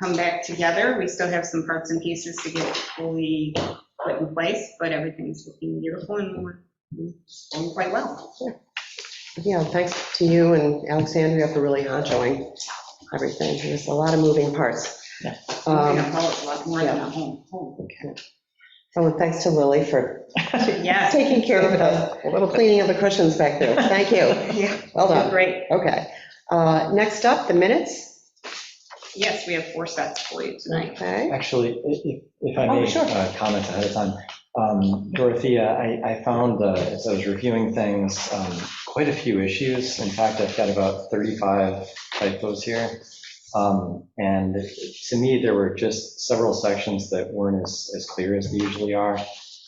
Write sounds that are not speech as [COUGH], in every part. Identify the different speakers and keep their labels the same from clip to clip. Speaker 1: come back together. We still have some parts and pieces to get fully put in place, but everything's looking beautiful and we're doing quite well.
Speaker 2: Yeah, thanks to you and Alexandria for really honchoing everything. There's a lot of moving parts.
Speaker 3: Yeah.
Speaker 1: We're
Speaker 2: Um,
Speaker 1: gonna call it a lot more than a home. Home.
Speaker 2: Oh, and thanks to Lily for
Speaker 1: Yes.
Speaker 2: taking care of us,
Speaker 3: A little bit.
Speaker 2: cleaning up the cushions back there. Thank you.
Speaker 1: Yeah,
Speaker 2: Well done.
Speaker 1: Great.
Speaker 2: Okay. Uh, Next up, the minutes.
Speaker 1: Yes, we have four sets for you tonight.
Speaker 2: Okay.
Speaker 4: Actually, i- if- if I
Speaker 2: Oh,
Speaker 4: may
Speaker 2: sure.
Speaker 4: uh, comment ahead of time, um, Dorothea, I I found, uh, as I was reviewing things, um, quite a few issues. In fact, I've got about 35 typos here. Um, And to me, there were just several sections that weren't as as clear as they usually are.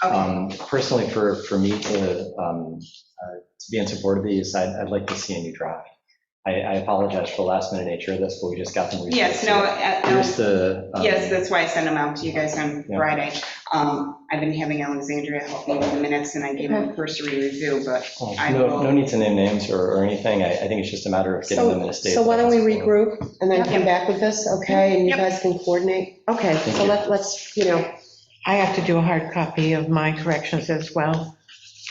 Speaker 1: Okay,
Speaker 4: Um, Personally, for for me to um, uh, to be in support of these, I'd I'd like to see a new draft. I I apologize for the last minute nature of this, but we just got them. reviewed.
Speaker 1: yes, no, uh, um,
Speaker 4: Here's the. um,
Speaker 1: Yes, that's why I sent them out to you guys on
Speaker 4: Yeah.
Speaker 1: Friday. Um, I've been having Alexandria help me with the minutes, and I gave them a cursory review, but
Speaker 4: Oh,
Speaker 1: I will-
Speaker 4: No, no need to name names or, or anything. I, I think it's just a matter of getting them in
Speaker 2: So
Speaker 4: a state.
Speaker 2: so why don't we
Speaker 4: that's-
Speaker 2: regroup and then come
Speaker 1: Yep.
Speaker 2: back with this, okay? And you
Speaker 1: Yep.
Speaker 2: guys can coordinate. Okay,
Speaker 4: Thank
Speaker 2: so
Speaker 4: you.
Speaker 2: let- let's, you know,
Speaker 3: I have to do a hard copy of my corrections as well.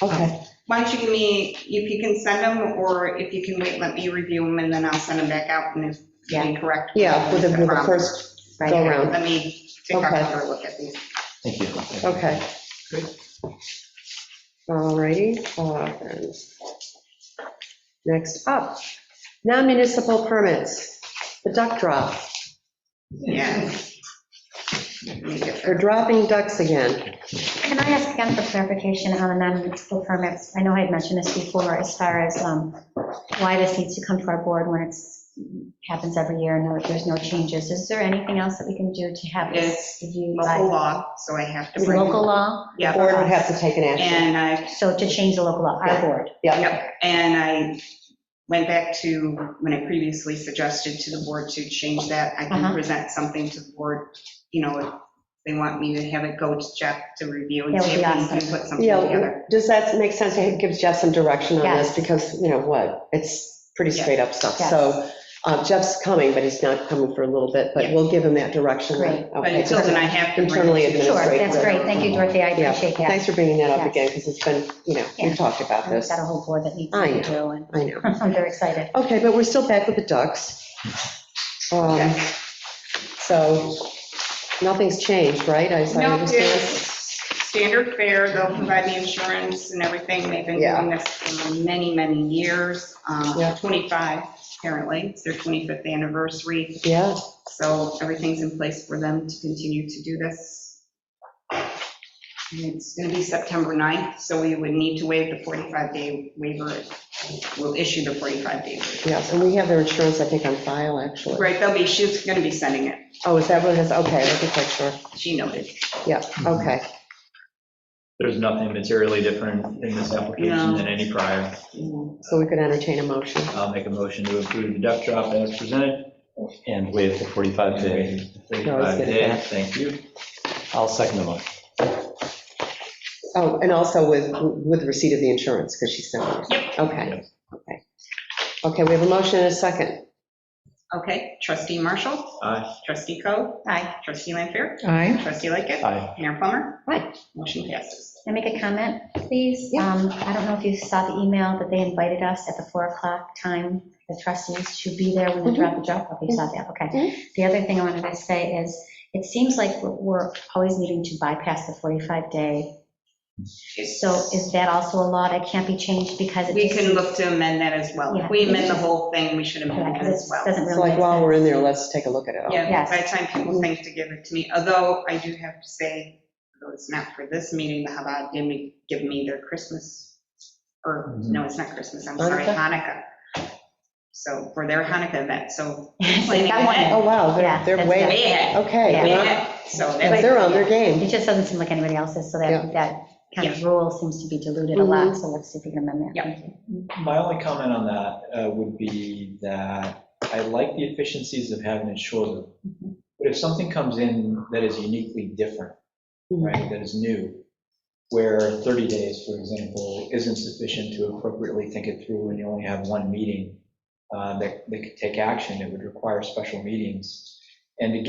Speaker 2: okay.
Speaker 1: why don't you give me, if you can send them, or if you can wait, let me review them, and then I'll send them back out, and if they correct.
Speaker 2: Yeah, with the with the
Speaker 1: problem.
Speaker 2: first, go around.
Speaker 1: Let me take
Speaker 2: Okay.
Speaker 1: a look at these.
Speaker 4: Thank you.
Speaker 2: okay. All righty. uh, and Next up, non-municipal permits, the duck drop.
Speaker 1: Yeah. Let me get
Speaker 2: They're
Speaker 1: there.
Speaker 2: dropping ducks again.
Speaker 5: Can I ask again for clarification on the non-municipal permits? I know I had mentioned this before, as far as um, why this needs to come to our board when it's, happens every year, and there's no changes. Is there anything else that we can do to have this reviewed
Speaker 1: Local
Speaker 5: by
Speaker 1: law, so I have to bring.
Speaker 5: local law?
Speaker 1: Yeah,
Speaker 2: Board would have to take an action.
Speaker 1: and I
Speaker 5: So to change the local law, our board.
Speaker 1: Yep, and I went back to when I previously suggested to the board to change that. I can
Speaker 5: Uh-huh.
Speaker 1: present something to the board, you know, if they want me to have it go to Jeff to review and
Speaker 5: That
Speaker 1: see if
Speaker 5: would
Speaker 1: we
Speaker 5: be
Speaker 1: can
Speaker 5: awesome.
Speaker 1: put something
Speaker 2: Yeah,
Speaker 1: together.
Speaker 2: does that make sense? It gives Jeff some direction on this,
Speaker 5: Yes.
Speaker 2: because, you know what, it's pretty
Speaker 1: Yes.
Speaker 2: straight up stuff.
Speaker 5: Yes.
Speaker 2: So uh, Jeff's coming, but he's not coming for a little bit, but
Speaker 1: Yeah.
Speaker 2: we'll give him that direction.
Speaker 5: Great.
Speaker 1: But
Speaker 2: Okay,
Speaker 1: until
Speaker 2: just-
Speaker 1: then, I have to bring
Speaker 2: internally
Speaker 1: it to.
Speaker 2: That's
Speaker 5: Sure,
Speaker 2: great.
Speaker 5: that's great. Thank you, Dorothy. I
Speaker 2: Yeah.
Speaker 5: appreciate that.
Speaker 2: Thanks for bringing that up
Speaker 5: Yes.
Speaker 2: again, because it's been, you know,
Speaker 5: Yeah.
Speaker 2: we've talked about
Speaker 5: We've
Speaker 2: this.
Speaker 5: got a whole board that needs
Speaker 2: I
Speaker 5: to
Speaker 2: know.
Speaker 5: do, and
Speaker 2: I know.
Speaker 5: [LAUGHS] I'm very excited.
Speaker 2: Okay, but we're still back with the ducks. Um,
Speaker 1: Okay.
Speaker 2: So nothing's changed, right? I as I
Speaker 1: No,
Speaker 2: understand.
Speaker 1: it's standard fare, they'll provide the insurance and everything, they've been
Speaker 2: Yeah.
Speaker 1: doing this for many, many years, um,
Speaker 2: Yeah.
Speaker 1: 25 apparently, it's their 25th anniversary,
Speaker 2: Yeah,
Speaker 1: so everything's in place for them to continue to do this. And It's going to be September 9th, so we would need to waive the 45-day waiver, we'll issue the 45-day waiver.
Speaker 2: yes, and we have their insurance, I think, on file, actually.
Speaker 1: Right, they'll be, she's going to be sending it,
Speaker 2: Oh, is that what it is? Okay, let me make sure.
Speaker 1: she noted.
Speaker 2: Yeah, okay.
Speaker 6: There's nothing materially different in this
Speaker 1: No.
Speaker 6: application than any prior.
Speaker 2: So we could entertain a motion.
Speaker 6: I'll make a motion to approve the duck drop as presented.
Speaker 4: And waive the 45 day.
Speaker 2: always
Speaker 6: Thirty-five
Speaker 2: get that.
Speaker 6: days, thank you.
Speaker 4: I'll second the motion.
Speaker 2: Oh, and also with, with receipt of the insurance, because she's not. Yep. Okay, okay. Okay, we have a motion and a second.
Speaker 1: Okay, trustee Marshall,
Speaker 6: Aye.
Speaker 1: trustee Coe,
Speaker 5: Aye.
Speaker 1: trustee Lanfair,
Speaker 3: Aye.
Speaker 1: trustee Lightgev.
Speaker 4: Aye.
Speaker 1: Mayor Plummer?
Speaker 5: Aye.
Speaker 1: Motion passes.
Speaker 5: Can I make a comment, please?
Speaker 2: Yeah.
Speaker 5: Um, I don't know if you saw the email, but they invited us at the 4 o'clock time, the trustees, to be there when
Speaker 2: Mm-hmm.
Speaker 5: we drop the drop off. You saw that,
Speaker 2: Mhm.
Speaker 5: okay. The other thing I wanted to say is, it seems like we're- we're always needing to bypass the 45-day. So is that also a law that can't be changed because it
Speaker 1: We
Speaker 5: just...
Speaker 1: can
Speaker 5: [LAUGHS]
Speaker 1: look to amend that as well. If we amend the whole thing, we should
Speaker 5: Yeah,
Speaker 1: amend that
Speaker 5: 'cause
Speaker 1: as
Speaker 5: it
Speaker 1: well.
Speaker 5: doesn't
Speaker 2: It's
Speaker 5: really
Speaker 2: like,
Speaker 5: make
Speaker 2: while
Speaker 5: sense.
Speaker 2: we're in there, let's take a look at it all.
Speaker 1: Yeah,
Speaker 5: Yes.
Speaker 1: by the time people think to give it to me, although I do have to say, though it's not for this meeting, but how about give me, give me their Christmas? Or,
Speaker 5: Mm-hmm.
Speaker 1: no, it's not Christmas, I'm sorry, Hanukkah. So for their Hanukkah event, so
Speaker 5: Like that one.
Speaker 2: Oh, wow,
Speaker 5: Yeah,
Speaker 2: they're, they're
Speaker 5: that's
Speaker 2: way,
Speaker 5: good.
Speaker 1: way ahead,
Speaker 2: okay,
Speaker 5: Yeah.
Speaker 1: way
Speaker 2: they're on-
Speaker 1: ahead. So
Speaker 2: yes,
Speaker 1: that's,
Speaker 2: they're on their game.
Speaker 5: It just doesn't seem like anybody else's, so
Speaker 2: Yeah. Mm-hmm.
Speaker 5: that, that kind of rule seems to be diluted a lot, so let's see if we can amend that.
Speaker 1: Yeah.
Speaker 5: Thank you.
Speaker 6: My only comment on that uh, would be that I like the efficiencies of having it shorter. But if something comes in that is uniquely different, right, that is new, where 30 days, for example, isn't sufficient to appropriately think it through and you only have one meeting uh, that, that could take action, it would require special meetings. And to